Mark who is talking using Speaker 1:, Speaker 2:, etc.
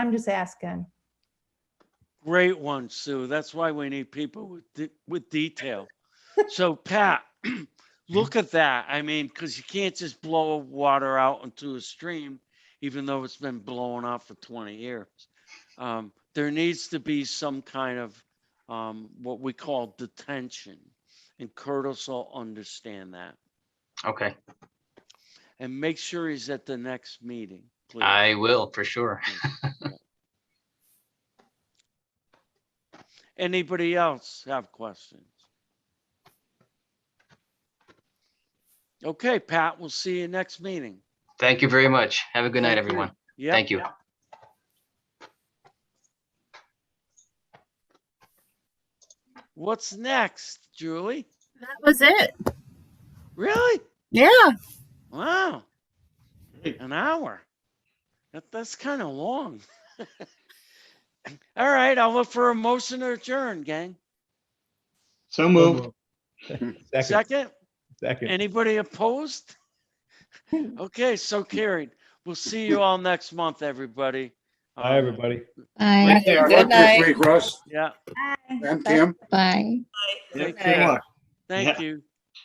Speaker 1: I'm just asking.
Speaker 2: Great one, Sue. That's why we need people with, de- with detail. So Pat, look at that. I mean, because you can't just blow water out into a stream, even though it's been blowing out for 20 years. Um, there needs to be some kind of, um, what we call detention. And Curtis will understand that.
Speaker 3: Okay,
Speaker 2: And make sure he's at the next meeting, please.
Speaker 3: I will for sure.
Speaker 2: Anybody else have questions? Okay, Pat, we'll see you next meeting.
Speaker 3: Thank you very much. Have a good
Speaker 2: Thank
Speaker 3: night,
Speaker 2: you.
Speaker 3: everyone.
Speaker 2: Yep.
Speaker 3: Thank you.
Speaker 2: What's next, Julie?
Speaker 4: That was it.
Speaker 2: Really?
Speaker 4: Yeah.
Speaker 2: Wow. An hour. That, that's kind of long. All right, I'll look for a motion to adjourn, gang.
Speaker 5: So moved.
Speaker 6: Second,
Speaker 2: Second?
Speaker 6: second.
Speaker 2: Anybody opposed? Okay, so carried. We'll see you all next month, everybody.
Speaker 6: Hi,
Speaker 2: Um,
Speaker 6: everybody.
Speaker 7: Bye.
Speaker 8: Yeah,
Speaker 4: Good
Speaker 8: work this
Speaker 4: night.
Speaker 8: week, Russ
Speaker 2: Yeah,
Speaker 1: Bye.
Speaker 8: and Tim.
Speaker 7: Bye.
Speaker 2: take
Speaker 5: Good
Speaker 2: care.
Speaker 5: luck.
Speaker 2: Thank you.